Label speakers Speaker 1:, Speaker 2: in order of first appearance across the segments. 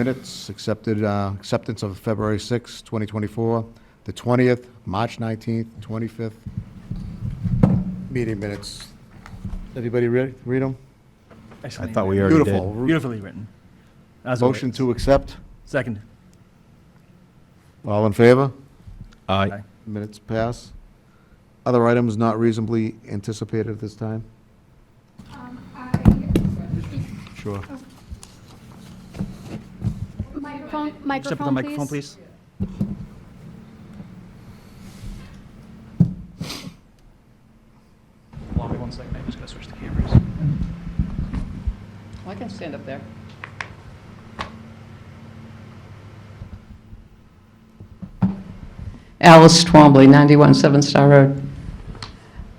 Speaker 1: Minutes accepted, uh, acceptance of February 6, 2024, the 20th, March 19th, 25th. Meeting minutes. Everybody read, read them?
Speaker 2: Excellent.
Speaker 3: I thought we already
Speaker 1: Beautiful.
Speaker 3: did.
Speaker 2: Beautifully written. As
Speaker 1: Motion
Speaker 2: always.
Speaker 1: to accept.
Speaker 2: Second.
Speaker 1: All in favor?
Speaker 3: Aye.
Speaker 1: Minutes pass. Other items not reasonably anticipated at this time?
Speaker 4: Um, I,
Speaker 1: Sure.
Speaker 4: microphone,
Speaker 2: Step to the microphone, please. Hold on one second, I'm just gonna switch the cameras.
Speaker 5: Well, I can stand up there. Alice Twombly, 91 Seven Star Road.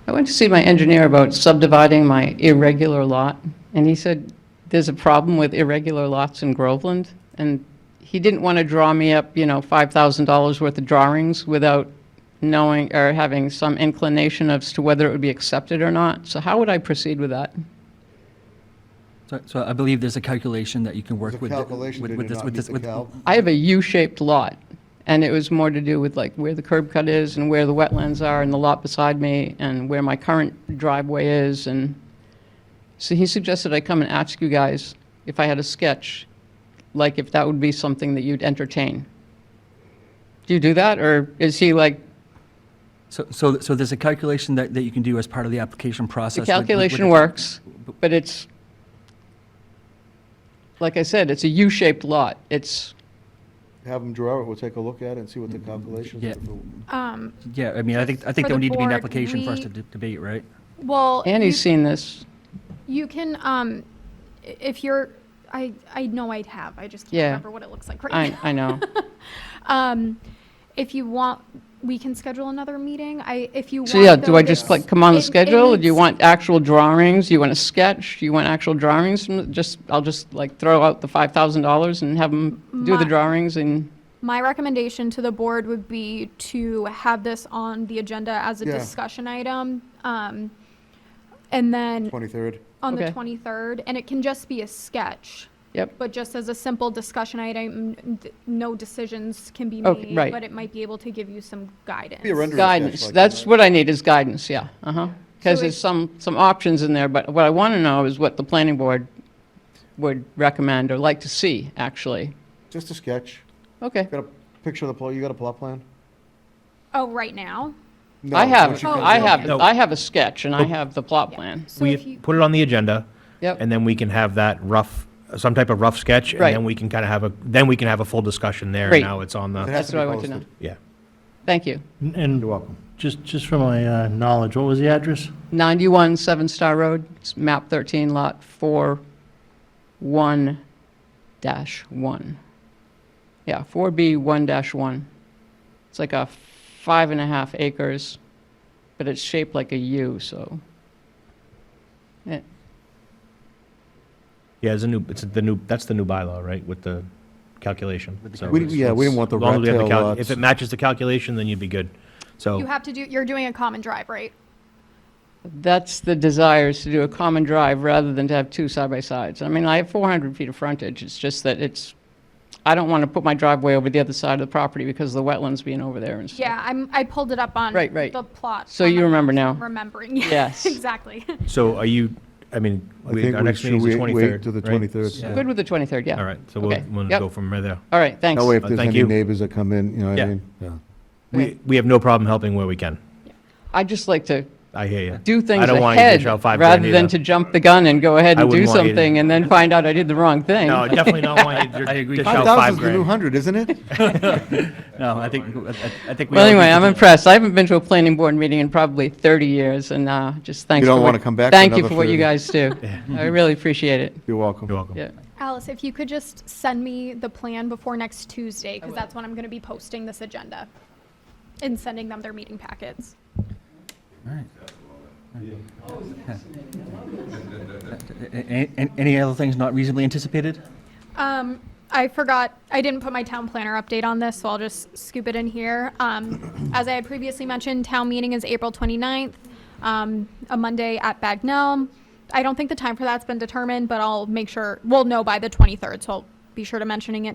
Speaker 5: I went to see my engineer about subdividing my irregular lot, and he said, there's a problem with irregular lots in Groveland, and he didn't want to draw me up, you know, $5,000 worth of drawings without knowing, or having some inclination as to whether it would be accepted or not. So how would I proceed with that?
Speaker 6: So- So I believe there's a calculation that you can work
Speaker 1: There's a
Speaker 6: with. the-
Speaker 1: calculation,
Speaker 6: with-
Speaker 1: did
Speaker 6: with
Speaker 1: it
Speaker 6: this-
Speaker 1: not
Speaker 6: with
Speaker 1: meet
Speaker 6: this-
Speaker 1: the
Speaker 6: with-
Speaker 1: cal?
Speaker 6: I-
Speaker 5: I have a U-shaped lot, and it was more to do with like where the curb cut is and where the wetlands are and the lot beside me and where my current driveway is and, so he suggested I come and ask you guys if I had a sketch, like if that would be something that you'd entertain. Do you do that, or is he like,
Speaker 6: So, so so there's a calculation that, that you can do as part of the application process.
Speaker 5: the
Speaker 6: with- with- with
Speaker 5: calculation
Speaker 6: the-
Speaker 5: works, but it's, like I said, it's a U-shaped lot, it's,
Speaker 1: Have them draw it, we'll take a look at it and see what the calculations
Speaker 6: Mm-hmm. Yeah.
Speaker 1: are.
Speaker 4: Um,
Speaker 6: Yeah, I mean, I think, I think there
Speaker 4: For the
Speaker 6: would need to be an
Speaker 4: board,
Speaker 6: application for us
Speaker 4: we-
Speaker 6: to de- debate, right?
Speaker 4: well,
Speaker 5: Annie's
Speaker 4: you,
Speaker 5: seen this,
Speaker 4: you can, um, i- if you're, I, I know I'd have, I just can't
Speaker 5: Yeah.
Speaker 4: remember what it looks like right
Speaker 5: I,
Speaker 4: now.
Speaker 5: I know.
Speaker 4: Um, if you want, we can schedule another meeting. I, if you want.
Speaker 5: So yeah, do
Speaker 4: though,
Speaker 5: I just
Speaker 4: this-
Speaker 5: like come on
Speaker 4: it-
Speaker 5: the
Speaker 4: it
Speaker 5: schedule? Do you
Speaker 4: needs-
Speaker 5: want actual drawings? Do you want a sketch? Do you want actual drawings? from the- Just, I'll just like throw out the $5,000 and have them do
Speaker 4: My-
Speaker 5: the drawings and,
Speaker 4: My recommendation to the board would be to have this on the agenda as a
Speaker 1: Yeah.
Speaker 4: discussion item. Um, and then
Speaker 1: 23rd.
Speaker 4: on the
Speaker 5: Okay.
Speaker 4: 23rd, and it can just be a sketch,
Speaker 5: yep,
Speaker 4: but just as a simple discussion item, n- d- no decisions can be
Speaker 5: Okay,
Speaker 4: made,
Speaker 5: right.
Speaker 4: but it might be able to give you some guidance.
Speaker 1: Be a rendering sketch
Speaker 5: guidance.
Speaker 1: like
Speaker 5: That's
Speaker 1: that.
Speaker 5: what I need is guidance, yeah, uh-huh. Because
Speaker 4: So
Speaker 5: there's
Speaker 4: it-
Speaker 5: some, some options in there, but what I want to know is what the planning board would recommend or like to see, actually.
Speaker 1: Just a sketch.
Speaker 5: Okay,
Speaker 1: Got a picture of the, pla- you got a plot plan?
Speaker 4: Oh, right now?
Speaker 5: I
Speaker 1: No,
Speaker 5: have,
Speaker 4: Oh,
Speaker 1: she comes
Speaker 5: I
Speaker 1: in.
Speaker 5: have,
Speaker 3: No.
Speaker 5: I have a sketch and I have the plot plan.
Speaker 4: So if
Speaker 3: We
Speaker 4: you,
Speaker 3: put it on the agenda,
Speaker 5: Yep,
Speaker 3: and then we can have that rough, some type of rough sketch, and
Speaker 5: Right.
Speaker 3: then we can kind of have a, then we can have a full discussion there.
Speaker 5: Great.
Speaker 3: Now it's on
Speaker 1: It
Speaker 3: the,
Speaker 1: has
Speaker 5: that's
Speaker 1: to be
Speaker 5: what I want to know.
Speaker 1: posted.
Speaker 3: yeah.
Speaker 5: Thank you.
Speaker 1: You're
Speaker 7: And
Speaker 1: welcome.
Speaker 7: just, just for my uh, knowledge, what was the address?
Speaker 5: 91 Seven Star Road, it's map 13, lot 4, 1 dash 1. Yeah, 4B 1 dash 1. It's like a five and a half acres, but it's shaped like a U, so. Yeah,
Speaker 3: Yeah, it's a new, it's the new, that's the new bylaw, right, with the calculation.
Speaker 6: With the
Speaker 3: So
Speaker 1: We,
Speaker 6: calculation.
Speaker 3: as
Speaker 1: yeah, we didn't want the
Speaker 3: long
Speaker 1: rat
Speaker 3: as we have the
Speaker 1: tail
Speaker 3: cal-
Speaker 1: lots.
Speaker 3: If it matches the calculation, then you'd be good.
Speaker 4: you
Speaker 5: Oh.
Speaker 3: So,
Speaker 4: have to do, you're doing a common drive, right?
Speaker 5: That's the desire, is to do a common drive rather than to have two side-by-sides. I mean, I have 400 feet of frontage, it's just that it's, I don't want to put my driveway over the other side of the property because of the wetlands being over there and stuff.
Speaker 4: Yeah, I'm, I pulled it up on
Speaker 5: Right, right.
Speaker 4: the plot.
Speaker 5: So
Speaker 4: on
Speaker 5: you
Speaker 4: my
Speaker 5: remember now.
Speaker 4: phone, Remembering.
Speaker 5: Yes.
Speaker 4: Exactly.
Speaker 3: so are you, I mean,
Speaker 1: I
Speaker 3: we-
Speaker 1: think
Speaker 3: our
Speaker 1: we
Speaker 3: next meeting is
Speaker 1: should
Speaker 3: the
Speaker 1: wait-
Speaker 3: 23rd,
Speaker 1: wait till the
Speaker 3: right?
Speaker 1: 23rd.
Speaker 6: Yeah.
Speaker 5: Good with the 23rd, yeah.
Speaker 3: All right, so we'll,
Speaker 5: Okay.
Speaker 3: we'll
Speaker 5: Yep.
Speaker 3: go from right there.
Speaker 5: All right, thanks.
Speaker 1: That way, if
Speaker 3: Uh,
Speaker 1: there's
Speaker 3: thank
Speaker 1: any
Speaker 3: you.
Speaker 1: neighbors that come in, you know what I
Speaker 3: Yeah.
Speaker 1: mean? Yeah.
Speaker 3: We, we have no problem helping where we can.
Speaker 5: I'd just like to
Speaker 3: I hear you.
Speaker 5: do things
Speaker 3: I don't want you to
Speaker 5: ahead,
Speaker 3: shout five grand
Speaker 5: rather than
Speaker 3: either.
Speaker 5: to jump the gun and go ahead
Speaker 3: I
Speaker 5: and do
Speaker 3: wouldn't want you to-
Speaker 5: something and then find out I did the wrong thing.
Speaker 3: No, definitely not want you to
Speaker 6: I agree.
Speaker 3: dish out
Speaker 1: 5,000
Speaker 3: five
Speaker 1: is the new
Speaker 3: grand.
Speaker 1: 100, isn't it?
Speaker 6: No, I think, I- I think. we
Speaker 5: Well,
Speaker 6: all agree
Speaker 5: anyway,
Speaker 6: to
Speaker 5: I'm
Speaker 6: the-
Speaker 5: impressed. I haven't been to a planning board meeting in probably 30 years, and uh, just thanks.
Speaker 1: You don't
Speaker 5: for
Speaker 1: wanna
Speaker 5: what-
Speaker 1: come back for
Speaker 5: Thank you
Speaker 1: another
Speaker 5: for what you
Speaker 1: 30.
Speaker 5: guys do. I really appreciate it,
Speaker 1: You're welcome.
Speaker 3: You're welcome.
Speaker 5: yeah.
Speaker 4: Alice, if you could just send me the plan before next Tuesday, because that's when I'm going to be posting this agenda and sending them their meeting packets.
Speaker 6: A- a- Any other things not reasonably anticipated?
Speaker 4: Um, I forgot, I didn't put my town planner update on this, so I'll just scoop it in here. Um, as I had previously mentioned, town meeting is April 29th, um, a Monday at Bagnell. I don't think the time for that's been determined, but I'll make sure, we'll know by the 23rd, so I'll be sure to mentioning it